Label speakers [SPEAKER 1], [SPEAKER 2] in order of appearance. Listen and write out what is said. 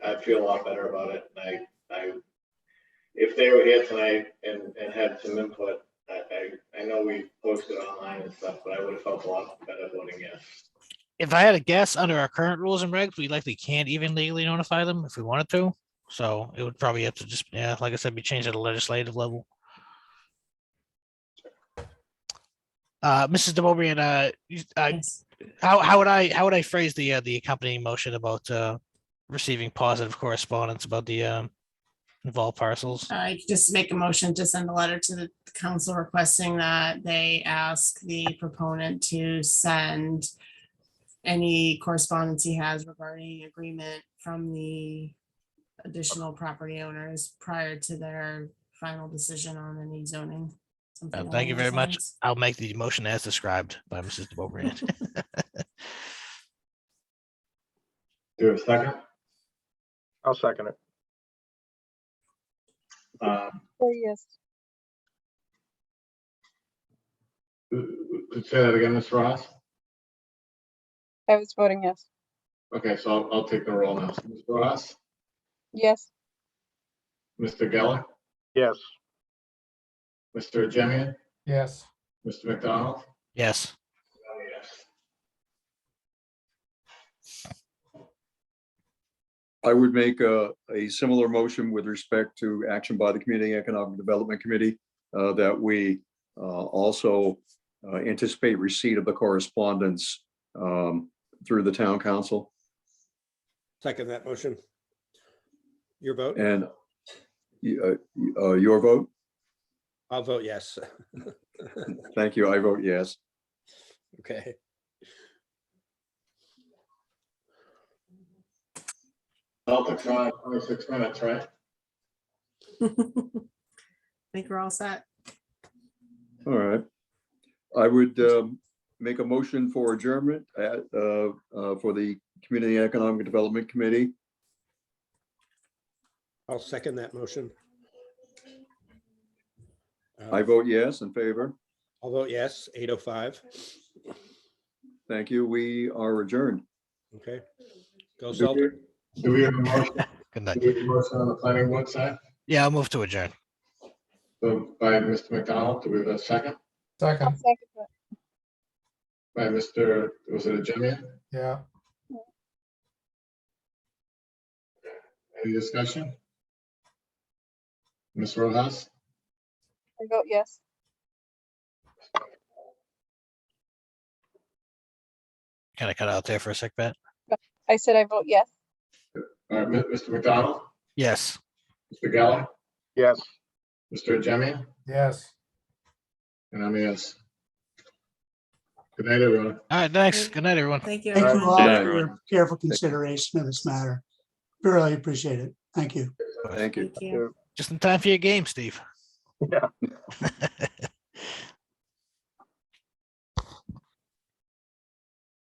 [SPEAKER 1] I feel a lot better about it, and I, I, if they were here tonight and, and had some input, I, I, I know we posted online and stuff, but I would have felt a lot better voting yes.
[SPEAKER 2] If I had a guess, under our current rules and regs, we likely can't even legally notify them if we wanted to. So it would probably have to just, yeah, like I said, be changed at a legislative level. Uh, Mrs. DeBoer, and uh, you- I,
[SPEAKER 3] Yes.
[SPEAKER 2] how, how would I, how would I phrase the, uh, the accompanying motion about, uh, receiving positive correspondence about the, um, involved parcels?
[SPEAKER 3] I just make a motion to send a letter to the council requesting that they ask the proponent to send any correspondence he has regarding agreement from the additional property owners prior to their final decision on any zoning. something
[SPEAKER 2] Uh, thank
[SPEAKER 3] along
[SPEAKER 2] you very
[SPEAKER 3] those
[SPEAKER 2] much.
[SPEAKER 3] lines.
[SPEAKER 2] I'll make the motion as described by Mrs. DeBoer.
[SPEAKER 1] Do you have a second?
[SPEAKER 4] I'll second it.
[SPEAKER 1] Um,
[SPEAKER 5] Oh, yes.
[SPEAKER 1] w- w- Uh, Say that again, Ms. Ross?
[SPEAKER 5] I was voting yes.
[SPEAKER 1] Okay, so I'll, I'll take the roll now. So, Ms. Ross,
[SPEAKER 5] Yes,
[SPEAKER 1] Mr. Geller,
[SPEAKER 4] Yes.
[SPEAKER 1] Mr. Jemian,
[SPEAKER 4] Yes.
[SPEAKER 1] Mr. McDonald?
[SPEAKER 2] Yes,
[SPEAKER 1] Oh, yes.
[SPEAKER 6] I would make a, a similar motion with respect to action by the Community Economic Development Committee uh, that we uh, also uh, anticipate receipt of the correspondence um, through the town council.
[SPEAKER 7] Second that motion. Your vote?
[SPEAKER 6] And uh, uh, your vote?
[SPEAKER 7] I'll vote yes.
[SPEAKER 6] Thank you. I vote yes.
[SPEAKER 7] Okay.
[SPEAKER 1] Celtics are on twenty-six minutes, right?
[SPEAKER 3] Think we're all set?
[SPEAKER 6] All right. I would um, make a motion for adjournment at, uh, uh, for the Community Economic Development Committee.
[SPEAKER 7] I'll second that motion. Uh,
[SPEAKER 6] I vote yes in favor.
[SPEAKER 7] I'll vote yes, 805.
[SPEAKER 6] Thank you. We are adjourned.
[SPEAKER 7] Okay. Go
[SPEAKER 6] Do
[SPEAKER 7] Celtic.
[SPEAKER 1] Do we have a motion,
[SPEAKER 2] good night.
[SPEAKER 1] do we have a motion on the planning board side?
[SPEAKER 2] Yeah, I'll move to adjourn.
[SPEAKER 1] So by Mr. McDonald, do we have a second?
[SPEAKER 5] I'll
[SPEAKER 4] Second,
[SPEAKER 5] second that.
[SPEAKER 1] By Mr., was it a Jemian?
[SPEAKER 4] yeah.
[SPEAKER 1] Any discussion? Ms. Rojas?
[SPEAKER 5] I vote yes.
[SPEAKER 2] Kind of cut out there for a sec, Pat.
[SPEAKER 5] I said I vote yes.
[SPEAKER 1] All right, Mr. McDonald,
[SPEAKER 2] Yes.
[SPEAKER 1] Mr. Geller,
[SPEAKER 4] Yes.
[SPEAKER 1] Mr. Jemian,
[SPEAKER 4] Yes.
[SPEAKER 1] and I'm a yes. Good night, everyone.
[SPEAKER 2] All right, thanks. Good night, everyone.
[SPEAKER 3] Thank you.
[SPEAKER 8] Thank you
[SPEAKER 3] everyone.
[SPEAKER 8] all
[SPEAKER 6] Yeah.
[SPEAKER 8] for your careful consideration of this matter. Really appreciate it. Thank you.
[SPEAKER 6] Thank you.
[SPEAKER 3] Thank you.
[SPEAKER 2] Just in time for your game, Steve.